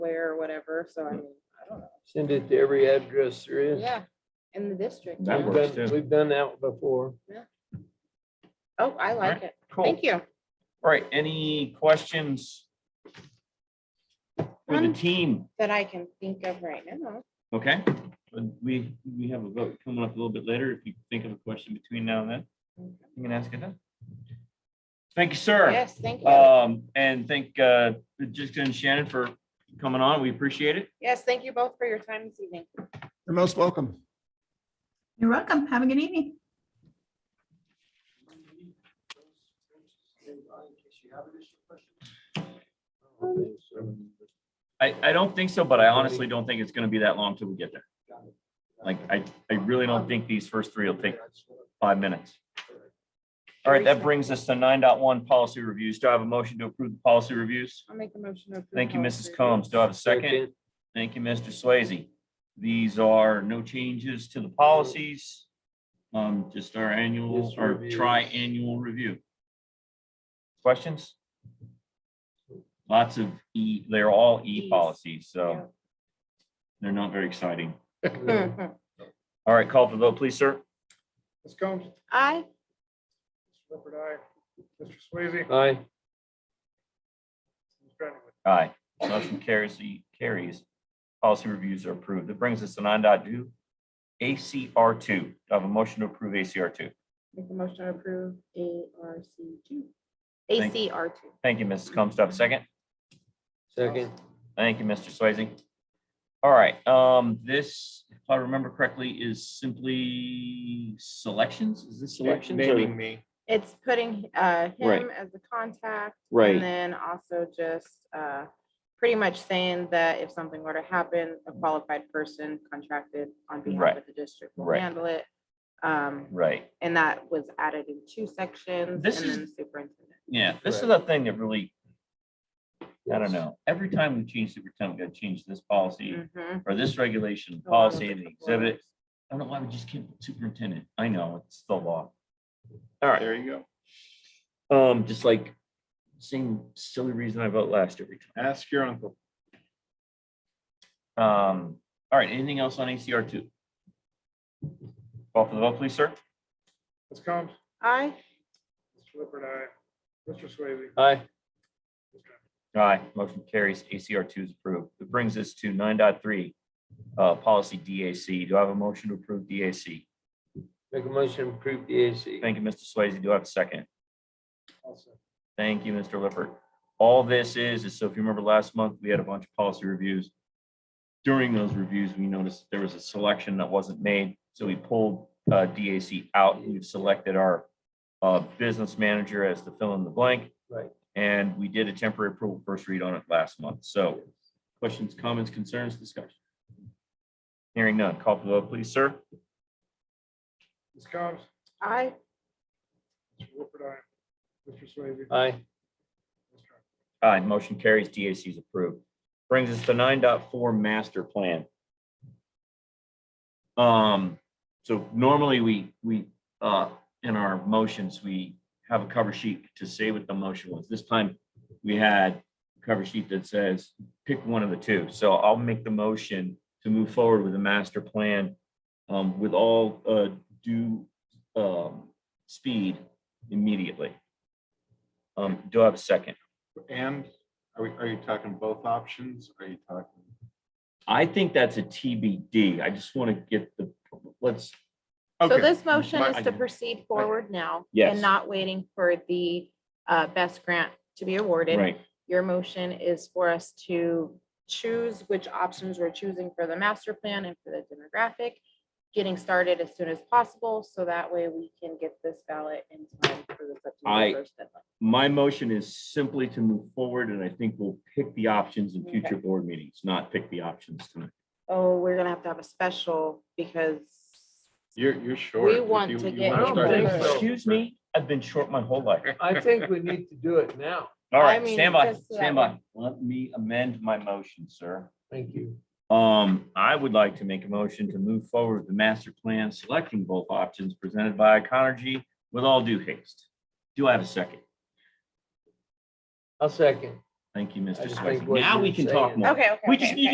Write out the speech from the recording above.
whatever, so I mean, I don't know. Send it to every address there is. Yeah, in the district. That yeah. We've works. done- too. We've done that before. Oh, I like it. Cool. Thank you. All right, any questions? For the None. team, That I can think of right now. okay? And We, we have a vote coming up a little bit later. If you think of a question between now and then, you can ask it then. Thank you, sir. Yes, thank you. Um, and thank, uh, Jessica and Shannon for coming on. We appreciate it. Yes, thank you both for your time this evening. You're most welcome. You're welcome. Have a good evening. I, I don't think so, but I honestly don't think it's gonna be that long till we get there. Like, I, I really don't think these first three will take five minutes. All right, that brings us to nine point one policy reviews. Do I have a motion to approve the policy reviews? I'll make a motion. to approve Thank you, policy Mrs. Combs. Do I have a second? Second. Thank you, Mr. Swayze. These are no changes to the policies. Um, just our annual Just or reviews. tri-annual review. Questions? Lots of E, they're all E E's. policies, Yeah. so they're not very exciting. Yeah. Mhm. All right, call for the vote, please, sir. Ms. Combs? I, Clifford, aye. Mr. Swayze? Aye. Ms. Brennan? Aye. Motion carries, the carries. Policy reviews are approved. That brings us to nine ACR two. Do I have a motion to approve ACR two? make a motion to approve ARC two. Thank- ACR two. Thank you, Mrs. Combs. Do I have a second? Second. Thank you, Mr. Swayze. All right, um, this, if I remember correctly, is simply selections? Is this selections? or- Naming me. It's putting uh, Right. him as the contact. Right. And then also just uh, pretty much saying that if something were to happen, a qualified person contracted on behalf Right. of the district will Right. handle it. Um, Right, And that was added in two sections. This and is- then Superintendent. yeah, this is a thing that really, I don't know, every time we change superintendent, we gotta change this policy Mhm. or this regulation, A lot of policy and the different exhibit. words. I don't know why we just can't put superintendent. I know, it's the law. All right. There you Um, just like same silly reason I vote last every go. Ask your uncle. time. Um, all right, anything else on ACR two? Call for the vote, please, sir. Ms. Combs? Aye. Mr. Clifford, aye. Mr. Swayze? Aye. Ms. Aye, Brennan? motion carries. ACR two is approved. That brings us to nine point three, uh, policy DAC. Do I have a motion to approve DAC? Make a motion to approve the AC. Thank you, Mr. Swayze. Do I have a second? Also. Thank you, Mr. Lippert. All this is, is so if you remember last month, we had a bunch of policy reviews. During those reviews, we noticed there was a selection that wasn't made, so we pulled uh, DAC out. We've selected our uh, business manager as the fill in the blank. Right. And we did a temporary approval first read on it last month. So questions, comments, concerns, discussion? Hearing none. Call for the vote, please, sir. Ms. Combs? Aye. Mr. Clifford, aye. Mr. Swayze? Aye. Ms. Brennan? Aye, motion carries. DAC is approved. Brings us to nine point four master plan. Um, so normally we, we, uh, in our motions, we have a cover sheet to say what the motion was. This time we had a cover sheet that says pick one of the two. So I'll make the motion to move forward with the master plan um, with all, uh, due, um, speed immediately. Um, do I have a second? And are we, are you talking both options? Are you talking? I think that's a TBD. I just want to get the, let's, So Okay. this motion My- is to proceed forward now. Yes. And not waiting for the uh, best grant to be awarded. right, Your motion is for us to choose which options we're choosing for the master plan and for the demographic, getting started as soon as possible, so that way we can get this ballot in time for the I- September first deadline. my motion is simply to move forward and I think we'll pick the options in future board meetings, not pick the options tonight. Oh, we're gonna have to have a special because, You're, you're short. If want you- to you get- wanna I don't start think this so. over. Excuse me, I've been short my whole life. I think we need to do it now. All I right, mean, stand by, just uh, that stand by. Let me amend my motion, sir. Thank you. Um, I would like to make a motion to move forward with the master plan, selecting both options presented by Iconergy with all due haste. Do I have a second? I'll second. Thank you, I Mr. just think Swayze. what Now we you're can talk saying- more. okay, okay. We just okay, need